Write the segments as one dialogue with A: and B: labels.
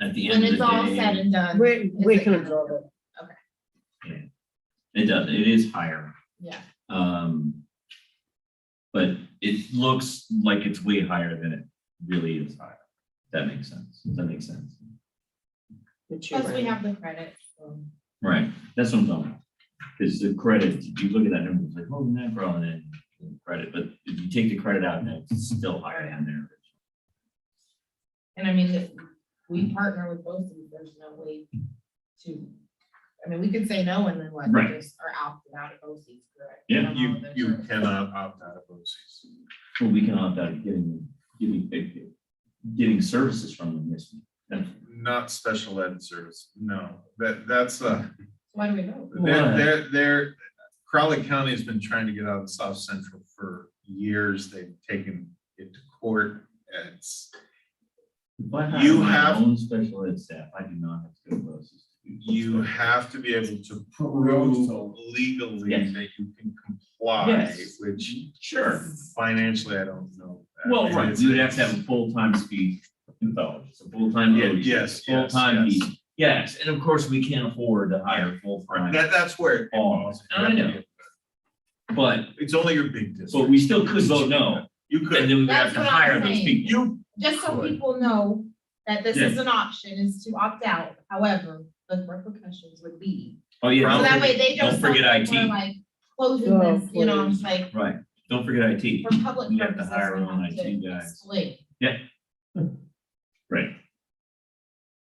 A: at the
B: When
A: end of
B: it's all
A: the
B: said
A: day,
B: and done.
C: We,
B: is
C: we
B: it
C: can
B: gonna-
C: absorb it.
A: it does, it is higher.
B: Yeah,
A: Um. But it looks like it's way higher than it really is higher. That makes sense. Does that make sense?
C: But you're
B: plus we
C: right.
B: have the credit. so.
A: Right, that's what I'm talking about. Because the credit, you look at that number, it's like, oh, macro, and then the credit, but if you take the credit out, then it's still higher than there.
B: And I mean, if we partner with both of them, there's no way to, I mean, we could say no and then what,
A: Right.
B: we just are opted out of both seats, correct?
A: Yeah,
B: From all
D: You,
B: of those
D: you
B: or-
D: cannot opt out of OCs.
A: Well, we can opt out of getting, getting, eh, getting services from them, yes. That's-
D: Not special ed service, no, that, that's a,
B: Why do we know?
D: they're, they're, they're- Crowley County has been trying to get out of South Central for years, they've taken it to court. It's,
A: If I
D: You
A: hire my
D: have-
A: own special ed staff, I do not have to go to those.
D: you have to be able to prove
A: Prove.
D: legally
A: Yes.
D: that you can comply,
A: Yes.
D: which
A: Sure,
D: financially, I don't know.
A: well,
D: Uh,
A: right,
D: it's-
A: you would have to have a full-time speech pathologist, a full-time.
D: Yeah,
A: OT,
D: yes, yes,
A: Full-time,
D: yes.
A: PE. yes, and of course, we can't afford to hire full-time.
D: That, that's where. it falls.
A: I know. But,
D: It's only your big district.
A: but we still could vote no,
D: You
A: and
D: could,
A: then we would have
B: That's
A: to
B: what I'm
A: hire those
B: saying.
A: people.
D: you
B: Just so
D: Could.
B: people know that this is
A: Yes.
B: an option, is to opt out, however, the repercussions would be.
A: Oh, yeah.
B: So
D: Don't
B: that
A: don't
B: way they
A: don't
B: don't.
A: forget
B: feel like
A: IT.
B: we're, Like closing
C: Oh,
B: this, you know, it's like
A: forget- Right, don't forget IT,
B: for public
A: We have to
B: purposes.
A: hire
B: we
A: our own
B: have to
A: IT guys.
B: split.
A: right.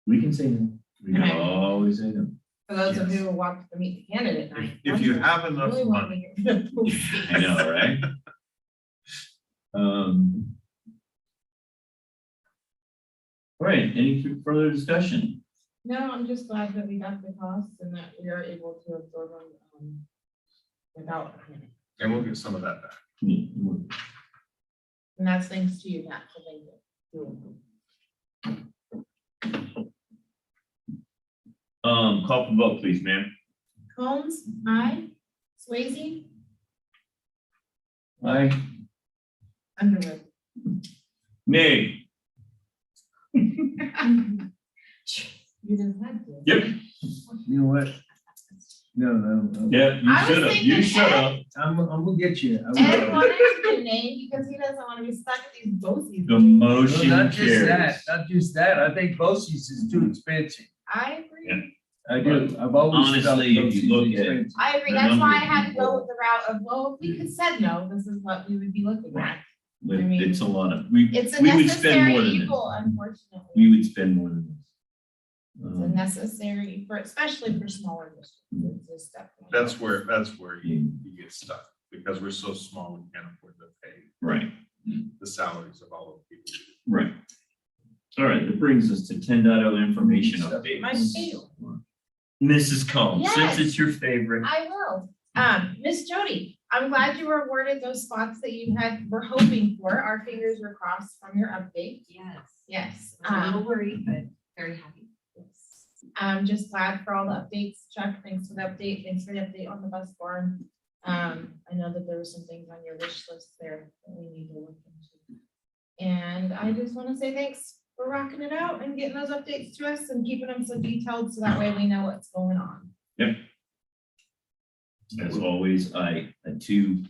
A: We can say no, we can
B: Okay.
A: always say no.
B: For those of
D: Yes.
B: you who want to meet the candidate
D: If
B: night.
D: if you have
B: I
D: enough
B: Really want to
D: money,
B: hear. from both
A: I
B: sides.
A: know, right? Um. All right, any fu- further discussion?
B: No, I'm just glad that we got the costs and that we are able to absorb them, um, without, a panic.
D: and we'll get some of that back.
A: All
B: and that's thanks to you, Matt, for making it. doable.
A: Um, call for vote, please, ma'am.
B: Combs, aye. Swayze,
A: Aye.
B: Underwood.
A: Nay.
B: You didn't have to.
A: Yep.
E: You know what? No, no, no.
A: Yeah, you
B: I was
A: should have, you
B: thinking
A: should have.
E: I'm, I'm gonna get you. I'm
B: Ed
E: gonna-
B: wanted to be named because he doesn't want to be stuck with these BOSI's.
A: The motion
E: Not just that,
A: carries.
E: not just that. I think BOSI's is too expensive.
B: I
A: Yeah.
B: agree.
E: I do. I've always felt
A: Honestly, if you
E: BOCES
A: look at-
E: expensive.
B: I agree.
A: The
B: That's why
A: number
B: I
A: of
B: had to go
A: people-
B: with the route of, well, if we could said no, this is what we would be looking at. I mean-
A: It's a lot of, we,
B: It's a
A: we would spend
B: necessary
A: more than this.
B: evil, unfortunately.
A: We would spend more than this.
B: It's a
A: Um,
B: necessary for, especially for smaller districts. It's just definitely-
D: That's where, that's where you,
A: yeah,
D: you get stuck, because we're so small, we can't afford to pay
A: Right,
D: the salaries of all of the people.
A: right. All right, that brings us to 10.0 information
E: Stuff.
A: updates.
B: My favorite.
A: Mrs. Combs, since
B: Yes.
A: it's your favorite.
B: I will. Um, Miss Jody, I'm glad you were awarded those spots that you had, were hoping for. Our fingers were crossed from your update.
F: Yes,
B: Yes.
F: I was a
B: Um,
F: little worried, but very happy.
B: I'm Um, just glad for all the updates. Chuck, thanks for the update. Thanks for the update on the bus barn. Um, I know that there were some things on your wish list there that we need to look into. And I just want to say thanks for rocking it out and getting those updates to us and keeping them so detailed so that way we know what's going on.
A: As always, I, I too,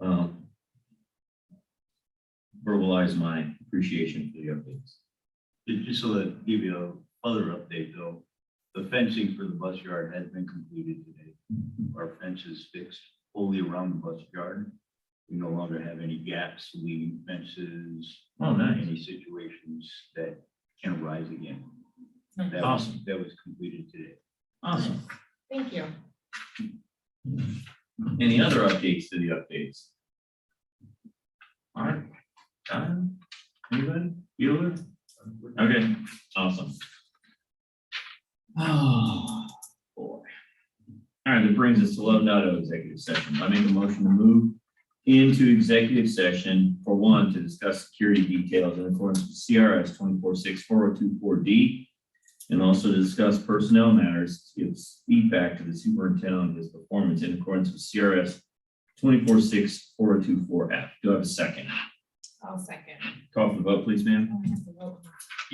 A: um, verbalize my appreciation for the updates.
G: Just so that, give you a other update though, the fencing for the bus yard has been completed today. Our fence is fixed fully around the bus yard. We no longer have any gaps, leading fences,
A: Oh,
G: any situations that can arise again. That was,
A: Awesome.
G: that was completed today.
A: Awesome.
B: Thank you.
A: Mm-hmm. Any other updates to the updates? All right. Don, anybody? Bueller? Okay, awesome. Oh, boy. All right, that brings us to eleven oh executive session. I make a motion to move into executive session for one, to discuss security details in accordance with CRS twenty-four six four oh two four D. And also to discuss personnel matters, to give feedback to the superintendent on his performance in accordance with CRS twenty-four six four oh two four F. Do I have a second?
B: I'll second.
A: Call for the vote, please, ma'am.
B: Oh, I have to vote.